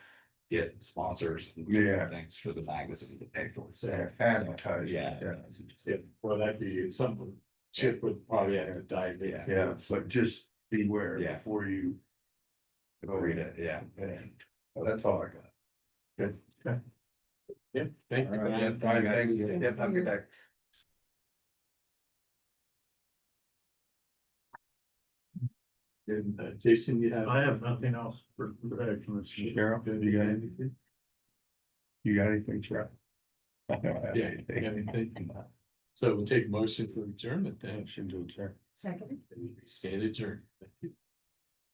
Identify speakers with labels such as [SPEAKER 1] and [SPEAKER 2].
[SPEAKER 1] get sponsors. and
[SPEAKER 2] Yeah.
[SPEAKER 1] Things for the magazine to pay for. it. So-
[SPEAKER 2] Yeah, advertising,
[SPEAKER 1] Yeah.
[SPEAKER 2] yeah.
[SPEAKER 3] Yeah, well, that'd be something Chip would probably have to dive in.
[SPEAKER 1] Yeah.
[SPEAKER 2] Yeah, but just beware
[SPEAKER 1] Yeah.
[SPEAKER 2] before you.
[SPEAKER 1] Read it, yeah.
[SPEAKER 2] And that's all I got.
[SPEAKER 3] Yeah, thank you.
[SPEAKER 1] All right, yeah,
[SPEAKER 3] Brian.
[SPEAKER 1] thank you, guys.
[SPEAKER 3] Yeah.
[SPEAKER 2] Yep, I'm good. back.
[SPEAKER 3] And, uh, Jason, you have.
[SPEAKER 4] I have nothing else for, for that, Commissioner.
[SPEAKER 2] Cheryl, you got anything? You got anything, Cheryl? I don't have
[SPEAKER 3] Yeah,
[SPEAKER 2] anything.
[SPEAKER 3] yeah, thank you. So we'll take motion for adjournment then.
[SPEAKER 2] Motion to adjourn.
[SPEAKER 5] Second.
[SPEAKER 3] Stand adjourned.